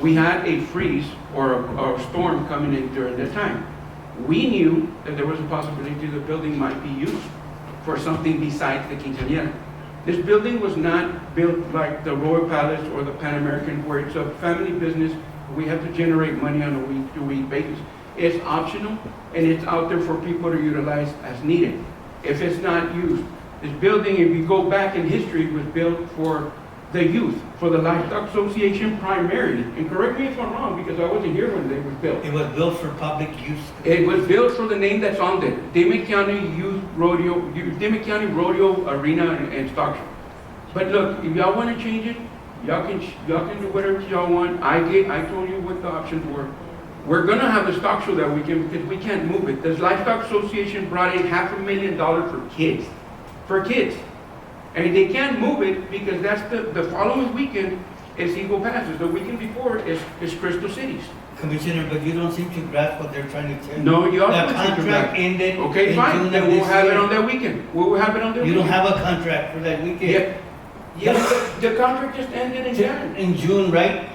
We had a freeze or a, or a storm coming in during that time. We knew that there was a possibility the building might be used for something besides the quinceañera. This building was not built like the Royal Palace or the Pan American where it's a family business. We have to generate money on a week-to-week basis. It's optional and it's out there for people to utilize as needed. If it's not used, this building, if you go back in history, was built for the youth, for the Livestock Association primarily. And correct me if I'm wrong, because I wasn't here when they was built. It was built for public use. It was built for the name that's on there, Demet County Youth Rodeo, Demet County Rodeo Arena and and Stock Show. But look, if y'all wanna change it, y'all can, ch- y'all can do whatever y'all want. I get, I told you what the options were. We're gonna have a stock show that weekend because we can't move it. This Livestock Association brought in half a million dollars for kids, for kids. And they can't move it because that's the, the following weekend is Eagle Passes. The weekend before is, is Crystal Cities. Commissioner, but you don't seem to grasp what they're trying to tell you. No, you The all don't seem to contract grasp. ended in Okay, June fine, of then we'll this have it year. on that weekend. We will have it on that You weekend. don't have a contract for that weekend. Yeah, yeah, the the contract just ended in January. In June, right?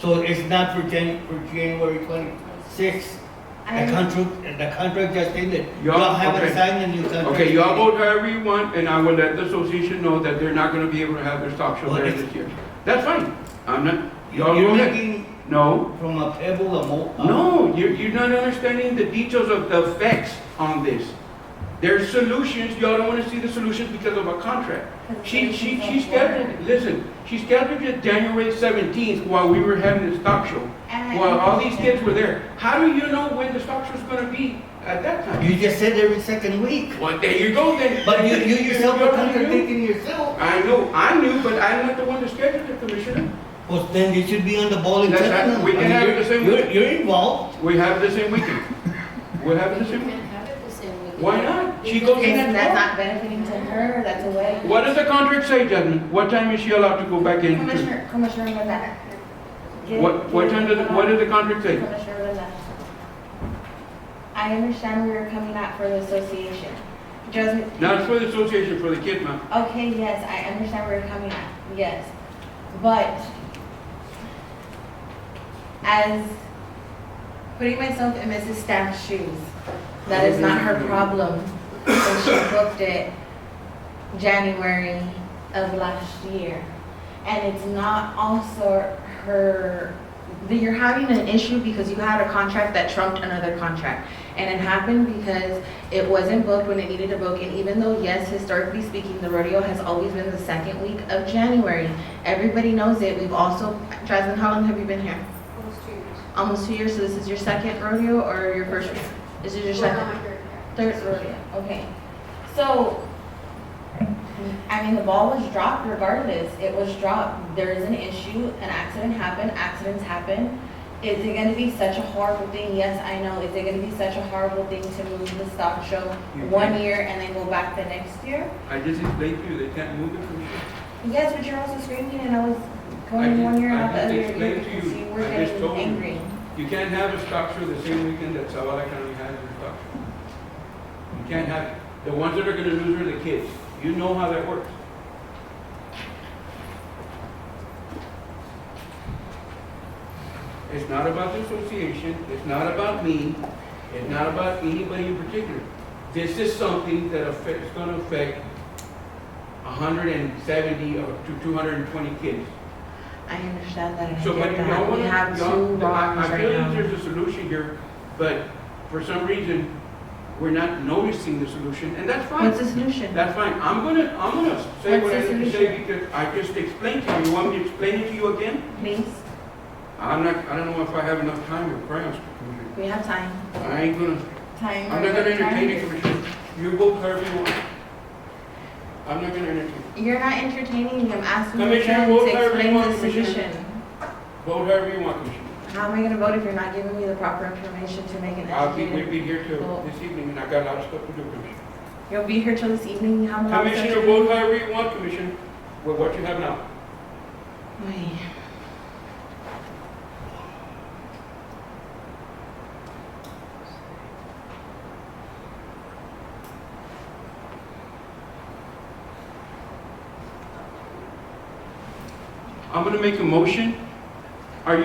So it's not for Jan, for January twenty-sixth. The I- contract, the contract just ended. Y'all- Y'all haven't okay. signed a new contract. Okay, y'all vote however you want, and I will let the association know that they're not gonna be able to have their stock show Well, there it's- this year. That's fine, I'm not, y'all go You're ahead. making No, from a pebble a mo. a- no, you're, you're not understanding the details of the effects on this. There's solutions, y'all don't wanna see the solutions because of a contract. She, she, she scheduled, listen, she scheduled it January seventeenth while we were having the stock show. And I- While all these kids were there. How do you know when the stock show's gonna be at that time? You just said every second week. Well, there you go then. But you, you yourself are already knew. contradicting yourself. I know, I knew, but I'm not the one that scheduled it, Commissioner. Well, then you should be on the ball in That's right. Tottenham. We I can mean, have you're- the same You're, week. you're involved. We have the same weekend. We have the You same, can't have it the same weekend. why not? She goes in Isn't that and out. not benefiting to her, that's a way. What does the contract say, Jasmine? What time is she allowed to go back in? Commissioner, Commissioner Lavelle. What, what time does, what does the contract say? Commissioner Lavelle. I understand we were coming out for the association. Jasmine. Not for the association, for the kid, ma'am. Okay, yes, I understand where you're coming at, yes. But as putting myself in Mrs. Staff's shoes, that is not her problem. And she booked it January of last year. And it's not also her, that you're having an issue because you had a contract that trumped another contract. And it happened because it wasn't booked when it needed to book, and even though, yes, historically speaking, the rodeo has always been the second week of January. Everybody knows it. We've also, Jasmine, how long have you been here? Almost two years. Almost two years, so this is your second rodeo or your first? This is your Well, second? not my third, yeah. Third rodeo, okay. So, I mean, the ball was dropped regardless. It was dropped. There is an issue, an accident happened, accidents happen. Is it gonna be such a horrible thing? Yes, I know. Is it gonna be such a horrible thing to move the stock show You one can't. year and then go back the next year? I just explained to you, they can't move it, Commissioner. Yes, but you're also screaming and I was I going did- one year I and out the did other year explain to because you. you were I just getting told you. angry. You can't have a stock show the same weekend that Zavala County has their stock show. You can't have, it. the ones that are gonna lose are the kids. You know how that works. It's not about the association, it's not about me, it's not about anybody in particular. This is something that affects, gonna affect hundred and seventy or to two hundred and twenty kids. I understand that and I So, but get you know that. what? We have two y'all- I- wrongs I right feel that now. there's a solution here, but for some reason, we're not noticing the solution, and that's fine. What's the solution? That's fine. I'm gonna, I'm gonna say What's what I the need to say solution? because I just explained to you. You want me to explain it to you again? Please, I'm not, I don't know if I have enough time or crayons, Commissioner. we have time. I ain't gonna, Time. I'm not gonna entertain it, Commissioner. You vote however you want. I'm not gonna entertain. it. You're not entertaining them, asking them Commissioner, to vote however you explain want, the Commissioner. solution. Vote however you want, Commissioner. How am I gonna vote if you're not giving me the proper information to make an I'll be, we'll educated? be here till Well- this evening, and I got a lot of stuff to do, Commissioner. You'll be here till this evening, how long? is that? Commissioner, vote however you want, Commissioner, with what you have now. Ay. I'm gonna make a motion